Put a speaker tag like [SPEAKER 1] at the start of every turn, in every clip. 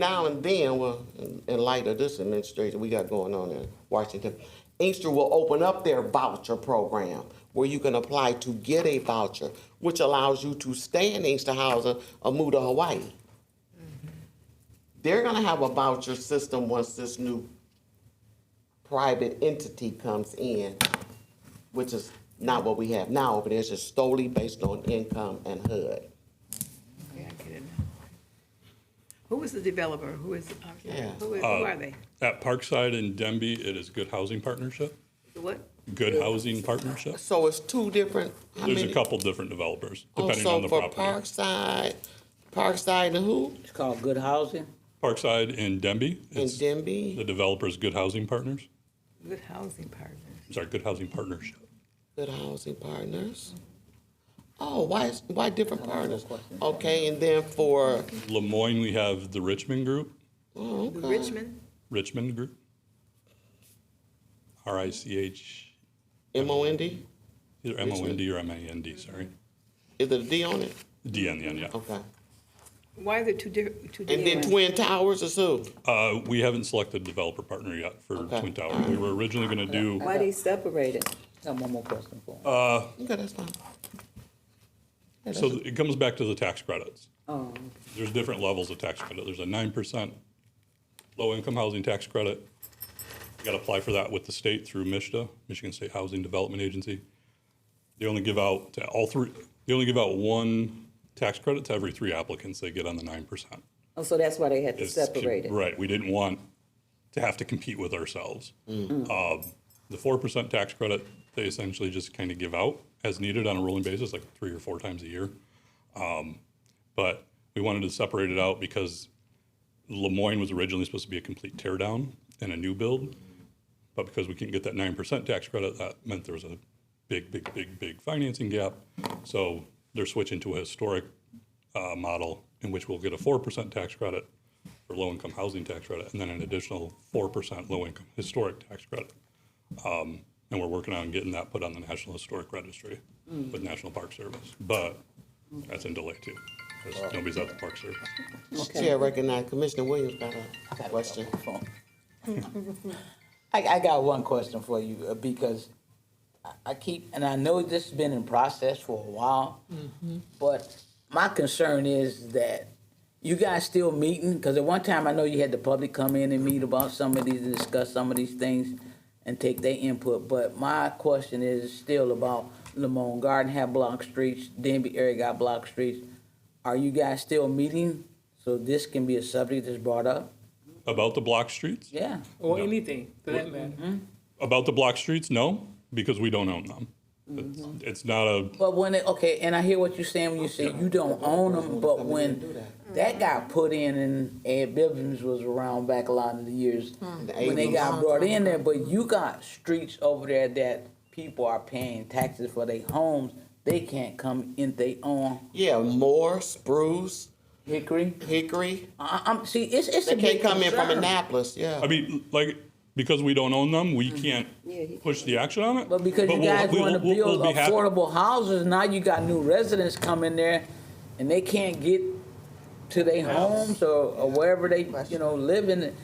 [SPEAKER 1] now and then, well, in- in light of this administration we got going on in Washington, Inkster will open up their voucher program where you can apply to get a voucher, which allows you to stay in Inkster housing or move to Hawaii. They're gonna have a voucher system once this new private entity comes in, which is not what we have now over there. It's just solely based on income and HUD.
[SPEAKER 2] Okay, I get it now. Who is the developer? Who is, I'm sorry,
[SPEAKER 1] Yeah.
[SPEAKER 2] who who
[SPEAKER 3] Uh,
[SPEAKER 2] are they?
[SPEAKER 3] At Parkside and Denby, it is Good Housing Partnership,
[SPEAKER 2] The What?
[SPEAKER 3] Good Housing Partnership.
[SPEAKER 1] So it's two different. how
[SPEAKER 3] There's a
[SPEAKER 1] many-
[SPEAKER 3] couple different developers,
[SPEAKER 1] Oh,
[SPEAKER 3] depending
[SPEAKER 1] so
[SPEAKER 3] on the
[SPEAKER 1] for
[SPEAKER 3] property.
[SPEAKER 1] Parkside, Parkside and who?
[SPEAKER 4] It's called good housing.
[SPEAKER 3] Parkside and Denby,
[SPEAKER 1] And
[SPEAKER 3] it's the
[SPEAKER 1] Denby?
[SPEAKER 3] developers Good Housing Partners,
[SPEAKER 2] Good Housing Partners.
[SPEAKER 3] sorry, Good Housing Partnership.
[SPEAKER 1] Good Housing Partners? Oh, why, is- why different partners? Okay, and then for,
[SPEAKER 3] Lemoyne, we have the Richmond Group,
[SPEAKER 1] oh,
[SPEAKER 2] The
[SPEAKER 1] okay.
[SPEAKER 2] Richmond?
[SPEAKER 3] Richmond Group. R I C H,
[SPEAKER 1] M O N D?
[SPEAKER 3] either M O N D or M A N D, sorry.
[SPEAKER 1] Is there a D on it?
[SPEAKER 3] D on the end, yeah.
[SPEAKER 1] Okay.
[SPEAKER 2] Why are there two different, two
[SPEAKER 1] And then
[SPEAKER 2] different?
[SPEAKER 1] Twin Towers is who?
[SPEAKER 3] Uh, we haven't selected developer partner yet for
[SPEAKER 1] Okay.
[SPEAKER 3] Twin Towers. We were originally gonna do,
[SPEAKER 5] Why they separated?
[SPEAKER 4] I have one more question for him.
[SPEAKER 1] Okay, that's fine. Yeah,
[SPEAKER 3] so
[SPEAKER 1] that's-
[SPEAKER 3] it comes back to the tax credits.
[SPEAKER 5] Oh,
[SPEAKER 3] there's different levels of tax credit. There's a nine percent low-income housing tax credit. You gotta apply for that with the state through MISHDA, Michigan State Housing Development Agency. They only give out to all three, they only give out one tax credit to every three applicants they get on the nine percent.
[SPEAKER 5] oh, so that's why they had to
[SPEAKER 3] It's-
[SPEAKER 5] separate it.
[SPEAKER 3] Right, we didn't want to have to compete with ourselves.
[SPEAKER 5] Mm-hmm.
[SPEAKER 3] Um, The four percent tax credit, they essentially just kind of give out as needed on a rolling basis, like three or four times a year. Um, But we wanted to separate it out because Lemoyne was originally supposed to be a complete tear down and a new build. But because we couldn't get that nine percent tax credit, that meant there was a big, big, big, big financing gap. So they're switching to a historic uh, model in which we'll get a four percent tax credit for low-income housing tax credit, and then an additional four percent low-income historic tax credit. Um, And we're working on getting that put on the National Historic Registry
[SPEAKER 4] Mm.
[SPEAKER 3] with National Park Service, but that's in delay too, because
[SPEAKER 4] Oh.
[SPEAKER 3] nobody's at the Park Service.
[SPEAKER 1] Chair recognized Commissioner Williams got a question.
[SPEAKER 4] I, I got one question for you uh, because I- I keep, and I know this has been in process for a while, but my concern is that you guys still meeting, because at one time I know you had the public come in and meet about some of these, and discuss some of these things and take their input, but my question is still about Lamont Garden have block streets, Denby area got block streets. Are you guys still meeting so this can be a subject that's brought up?
[SPEAKER 3] About the block streets?
[SPEAKER 4] Yeah.
[SPEAKER 6] Or
[SPEAKER 3] No.
[SPEAKER 6] anything for that matter.
[SPEAKER 3] About the block streets, no, because we don't own them. It's-
[SPEAKER 4] Mm-hmm.
[SPEAKER 3] It's not a,
[SPEAKER 4] But when it, okay, and I hear what you're saying when you say you don't own them, but when that got put in and Ed Bibbins was around back a lot of the years, when they got brought in there, but you got streets over there that people are paying taxes for their homes, they can't come in their own
[SPEAKER 1] Yeah, Moore, Spruce,
[SPEAKER 4] hickory.
[SPEAKER 1] Hickory,
[SPEAKER 4] I, I'm, see, it's, it's a
[SPEAKER 1] they
[SPEAKER 4] big
[SPEAKER 1] can't come in from
[SPEAKER 4] concern.
[SPEAKER 1] Annapolis, yeah.
[SPEAKER 3] I mean, like, because we don't own them,
[SPEAKER 4] Mm-hmm.
[SPEAKER 3] we can't
[SPEAKER 5] Yeah, he-
[SPEAKER 3] push the action on it.
[SPEAKER 4] But because you
[SPEAKER 3] we'll-
[SPEAKER 4] guys
[SPEAKER 3] we'll-
[SPEAKER 4] want to
[SPEAKER 3] we'll- we'll
[SPEAKER 4] build
[SPEAKER 3] be happy-
[SPEAKER 4] affordable houses, now you got new residents coming there and they can't get to their homes or, or wherever they, you know, live in.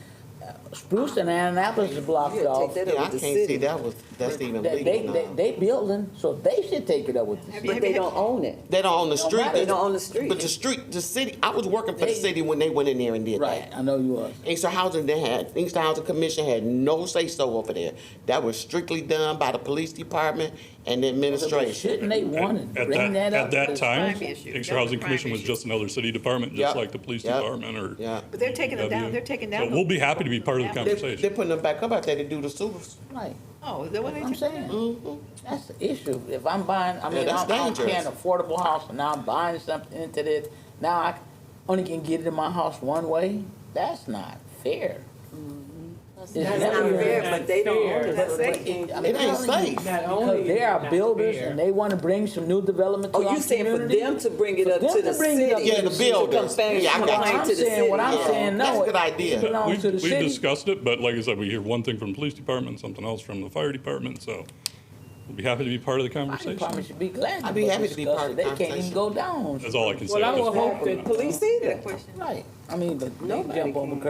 [SPEAKER 4] Uh, Spruce and Annapolis is blocked
[SPEAKER 5] Yeah,
[SPEAKER 4] off.
[SPEAKER 5] take that
[SPEAKER 1] Yeah, I
[SPEAKER 5] up
[SPEAKER 1] can't
[SPEAKER 5] with the
[SPEAKER 1] see
[SPEAKER 5] city,
[SPEAKER 1] that was, that's even
[SPEAKER 4] They, they,
[SPEAKER 1] legal
[SPEAKER 4] they,
[SPEAKER 1] now.
[SPEAKER 4] they building, so they should take it up with the city.
[SPEAKER 5] but they don't own it.
[SPEAKER 1] They don't own the street.
[SPEAKER 5] They don't own the street.
[SPEAKER 1] But the street, the city, I was working for the city when they went in there and did
[SPEAKER 4] Right,
[SPEAKER 1] that.
[SPEAKER 4] I know you was.
[SPEAKER 1] Inkster Housing, they had, Inkster Housing Commission had no say-so over there. That was strictly done by the police department and the administration.
[SPEAKER 4] Shouldn't they want to
[SPEAKER 3] At
[SPEAKER 4] bring
[SPEAKER 3] that,
[SPEAKER 4] that up?
[SPEAKER 3] at that
[SPEAKER 4] Because-
[SPEAKER 3] time,
[SPEAKER 2] Crime issue.
[SPEAKER 3] Inkster
[SPEAKER 2] That's a
[SPEAKER 3] Housing
[SPEAKER 2] crime
[SPEAKER 3] Commission was
[SPEAKER 2] issue.
[SPEAKER 3] just another city department,
[SPEAKER 1] Yep.
[SPEAKER 3] just like the police
[SPEAKER 1] Yep.
[SPEAKER 3] department or.
[SPEAKER 1] Yeah.
[SPEAKER 2] But they're taking it down, they're taking down.
[SPEAKER 3] So we'll be happy to be part of the
[SPEAKER 1] They,
[SPEAKER 3] conversation.
[SPEAKER 1] they're putting them back up out there to do the sewers.
[SPEAKER 4] Right,
[SPEAKER 2] Oh, is that what they?
[SPEAKER 4] I'm
[SPEAKER 2] took down?
[SPEAKER 4] saying,
[SPEAKER 1] Mm-hmm.
[SPEAKER 4] that's the issue. If I'm buying, I mean,
[SPEAKER 1] that's
[SPEAKER 4] I'm, I'm
[SPEAKER 1] dangerous.
[SPEAKER 4] paying affordable house and now I'm buying something into this. Now I only can get it in my house one way. That's not fair. It's
[SPEAKER 5] Mm-hmm. That's
[SPEAKER 4] never
[SPEAKER 5] not
[SPEAKER 4] fair.
[SPEAKER 5] fair, but they don't own it.
[SPEAKER 6] That's
[SPEAKER 5] But
[SPEAKER 2] it.
[SPEAKER 5] they-
[SPEAKER 4] I'm
[SPEAKER 1] It ain't
[SPEAKER 4] telling you,
[SPEAKER 1] safe.
[SPEAKER 6] Not only
[SPEAKER 4] Because there
[SPEAKER 6] not
[SPEAKER 4] are builders
[SPEAKER 6] fair.
[SPEAKER 4] and they want to bring some new development to
[SPEAKER 5] Oh,
[SPEAKER 4] our
[SPEAKER 5] you saying for
[SPEAKER 4] community.
[SPEAKER 5] them to bring it
[SPEAKER 4] For
[SPEAKER 5] up
[SPEAKER 4] them
[SPEAKER 5] to
[SPEAKER 4] to
[SPEAKER 5] the
[SPEAKER 4] bring it
[SPEAKER 5] city?
[SPEAKER 4] up
[SPEAKER 1] Yeah, the
[SPEAKER 5] to
[SPEAKER 1] builders.
[SPEAKER 5] complain-
[SPEAKER 1] Yeah, I got
[SPEAKER 5] complain
[SPEAKER 1] you.
[SPEAKER 4] I'm
[SPEAKER 5] to the
[SPEAKER 4] saying what I'm
[SPEAKER 5] city.
[SPEAKER 1] Yeah,
[SPEAKER 4] saying, no.
[SPEAKER 1] that's a good
[SPEAKER 4] it- it
[SPEAKER 1] idea.
[SPEAKER 4] belongs
[SPEAKER 3] We've
[SPEAKER 4] to Oh, the
[SPEAKER 3] we've
[SPEAKER 4] city.
[SPEAKER 3] discussed it, but like I said, we hear one thing from the police department, something else from the fire department, so We'll be happy to be part of the
[SPEAKER 4] My
[SPEAKER 3] conversation.
[SPEAKER 4] department should be glad.
[SPEAKER 1] I'd be
[SPEAKER 4] go
[SPEAKER 1] happy to be
[SPEAKER 4] discuss
[SPEAKER 1] part
[SPEAKER 4] it.
[SPEAKER 1] of the
[SPEAKER 4] They can't even
[SPEAKER 1] conversation.
[SPEAKER 4] go down.
[SPEAKER 3] That's all I can say.
[SPEAKER 5] Well, I
[SPEAKER 3] at this
[SPEAKER 5] would
[SPEAKER 3] point.
[SPEAKER 5] hope that police either.
[SPEAKER 2] Question.
[SPEAKER 4] Right. I mean, but they
[SPEAKER 5] Nobody
[SPEAKER 4] jump on
[SPEAKER 5] can.
[SPEAKER 4] because